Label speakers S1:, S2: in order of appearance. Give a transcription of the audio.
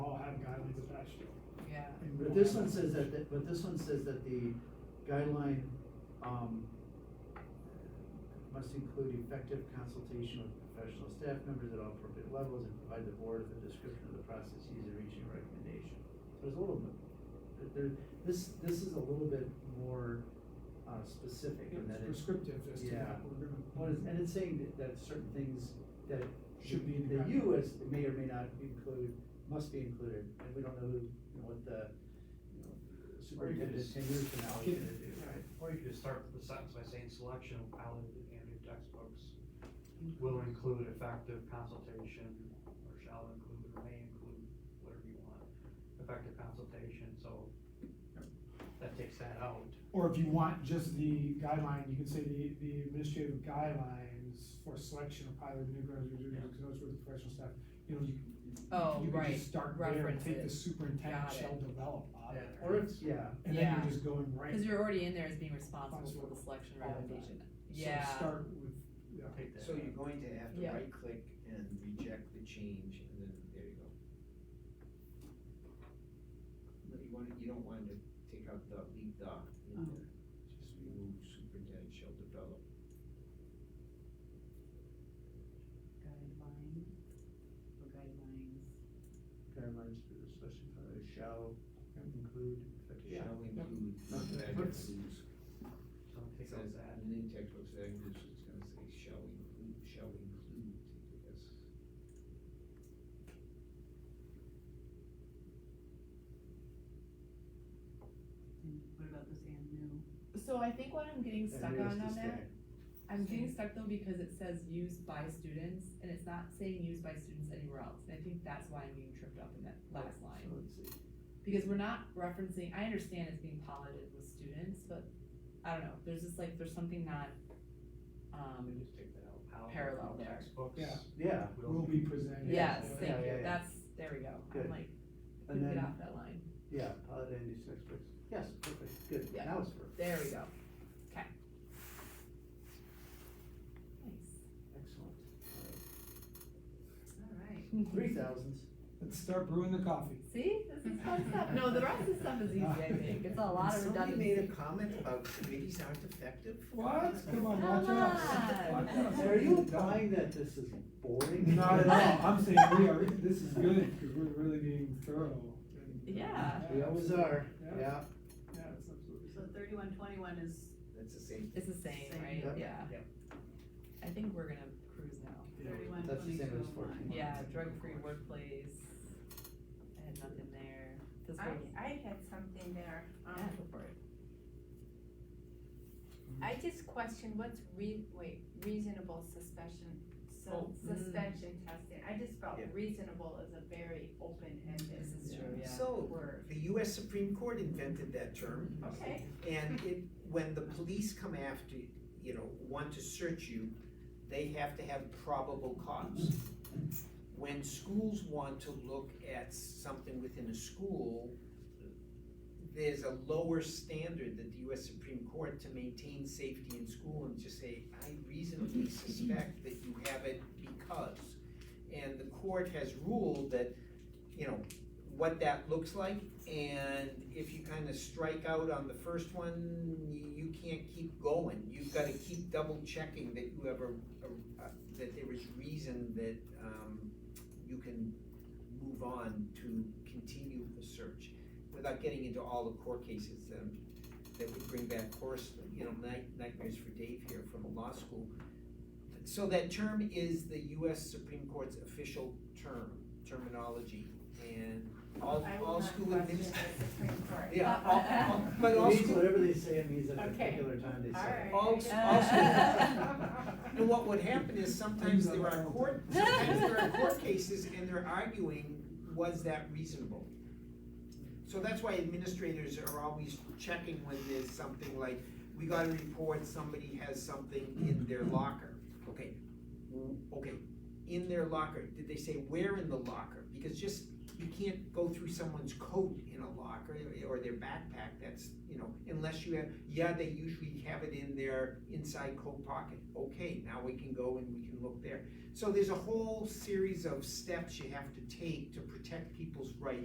S1: But this one says that, the- but this one says that the guideline, um, must include effective consultation with professional staff members at all appropriate levels and provide the board with a description of the process used in reaching a recommendation. So there's a little bit, there, this, this is a little bit more, uh, specific in that
S2: It's
S1: it.
S2: prescriptive as to
S1: Yeah.
S2: what we're gonna.
S1: Well, it's- and it's saying that, that certain things that.
S2: Should be in the
S1: That you
S2: guidelines.
S1: as, may or may not include, must be included, and we don't know who, you know, what the, you know, superintendent
S3: just-
S1: ten years from now is
S2: Kid-
S1: gonna do, right?
S3: Or you could just start the sentence by saying selection of pilot and new textbooks will include effective consultation, or shall include, or may include, whatever you want, effective consultation, so that takes that out.
S2: Or if you want just the guideline, you can say the, the administrative guidelines for selection of pilot new graduates, those were the professional staff, you know, you.
S4: Oh,
S2: You could
S4: right,
S2: just start there and take the
S4: references.
S2: superintendent
S4: Got it.
S2: shall develop on it.
S1: Or it's, yeah,
S2: And then
S4: Yeah.
S2: you're just going right.
S4: Cause you're already in there as being responsible for the selection
S2: All of that.
S4: recommendation,
S2: So
S4: yeah,
S2: Start with, yeah.
S3: Take that
S5: So
S3: out.
S5: you're going to have to
S4: Yeah.
S5: right click and reject the change and then there you go. No, You want, you don't want to take out the, leave the
S2: Oh.
S5: in there, just remove superintendent shall develop.
S4: guideline, or guidelines.
S1: guidelines for the selection, uh, shall include effective.
S5: Shall include.
S1: Not
S5: the
S1: that-
S5: guidance rules.
S3: So take out
S5: Says
S3: that.
S5: in the textbooks, that is, it's gonna say shall include, shall include, I guess.
S4: What about this and new? So I think what I'm getting stuck on on that, I'm getting stuck though because it says used by students, and it's not saying used by students anywhere else, and I think that's why I'm being tripped up in that last line.
S1: So let's see,
S4: Because we're not referencing, I understand it's being piloted with students, but I don't know, there's just like, there's something not,
S3: Then
S4: um,
S3: just take that out. Pilot
S4: Parallel there.
S3: Textbooks.
S2: Yeah.
S1: yeah,
S2: Will be presented.
S4: yes,
S1: yeah,
S4: thank
S1: yeah,
S4: you,
S1: yeah.
S4: that's, there we go,
S1: Good.
S4: I'm like,
S1: and
S4: couldn't get
S1: then,
S4: off that line,
S1: yeah, pilot and use textbooks, yes, perfect, good,
S4: Yeah.
S1: now it's perfect,
S4: there we go, okay. Nice,
S1: excellent.
S4: alright.
S1: Three thousands,
S2: Let's start brewing the coffee.
S4: See, this is fun stuff. No, the rest of the stuff is easy, I think. It's a lot of
S5: Somebody made a
S4: redundancy.
S5: comment about committees aren't effective.
S2: What? Come on, watch
S4: Come
S2: us.
S4: on.
S2: Watch us.
S1: are you implying that this is boring?
S2: Not at all, I'm saying we are, this is good, cause we're really being thorough. and-
S4: Yeah.
S1: We always are,
S2: Yeah.
S1: yeah.
S2: Yeah, it's absolutely.
S6: So thirty-one twenty-one is,
S5: That's the same.
S4: It's the same, right?
S1: Yep.
S4: Yeah.
S3: Yep.
S4: I think we're gonna cruise now.
S2: Yeah.
S6: thirty-one
S1: That's the
S6: twenty-two
S1: same as
S6: oh
S1: 14.
S6: one.
S4: Yeah, drug-free workplace. I had nothing there. Physical-
S7: I, I had something there. Um,
S4: Yeah, go for it.
S7: I just questioned what's re, wait, reasonable suspension, so
S4: Oh, mm.
S7: suspension testing. I just felt
S5: Yeah.
S7: reasonable is a very open-ended
S4: This is true, yeah.
S5: So,
S7: word.
S5: the US Supreme Court invented that term.
S7: Okay,
S5: And it, when the police come after, you know, want to search you, they have to have probable cause. When schools want to look at something within a school, there's a lower standard that the US Supreme Court to maintain safety in school and just say, I reasonably suspect that you have it because. And the court has ruled that, you know, what that looks like and if you kind of strike out on the first one, you- you can't keep going. You've got to keep double checking that you have a, a- a- that there is reason that um, you can move on to continue the search without getting into all the court cases um, that would bring back horse, you know, night- nightmares for Dave here from law school. So that term is the US Supreme Court's official term, terminology, and all,
S7: I will
S5: all
S7: not
S5: school
S7: question
S5: adminis-
S7: the Supreme Court.
S5: yeah, all- all- but all
S1: Means
S5: school,
S1: whatever they say it means at a
S7: Okay.
S1: particular time, they say.
S7: Alright.
S5: all, all school- and what would happen is sometimes there are court, sometimes there are court cases and they're arguing, was that reasonable? So that's why administrators are always checking when there's something like, we got a report, somebody has something in their locker. Okay, w- okay, in their locker, did they say where in the locker? Because just, you can't go through someone's coat in a locker eh, or their backpack, that's, you know, unless you have, yeah, they usually have it in their inside coat pocket. Okay, now we can go and we can look there. So there's a whole series of steps you have to take to protect people's rights.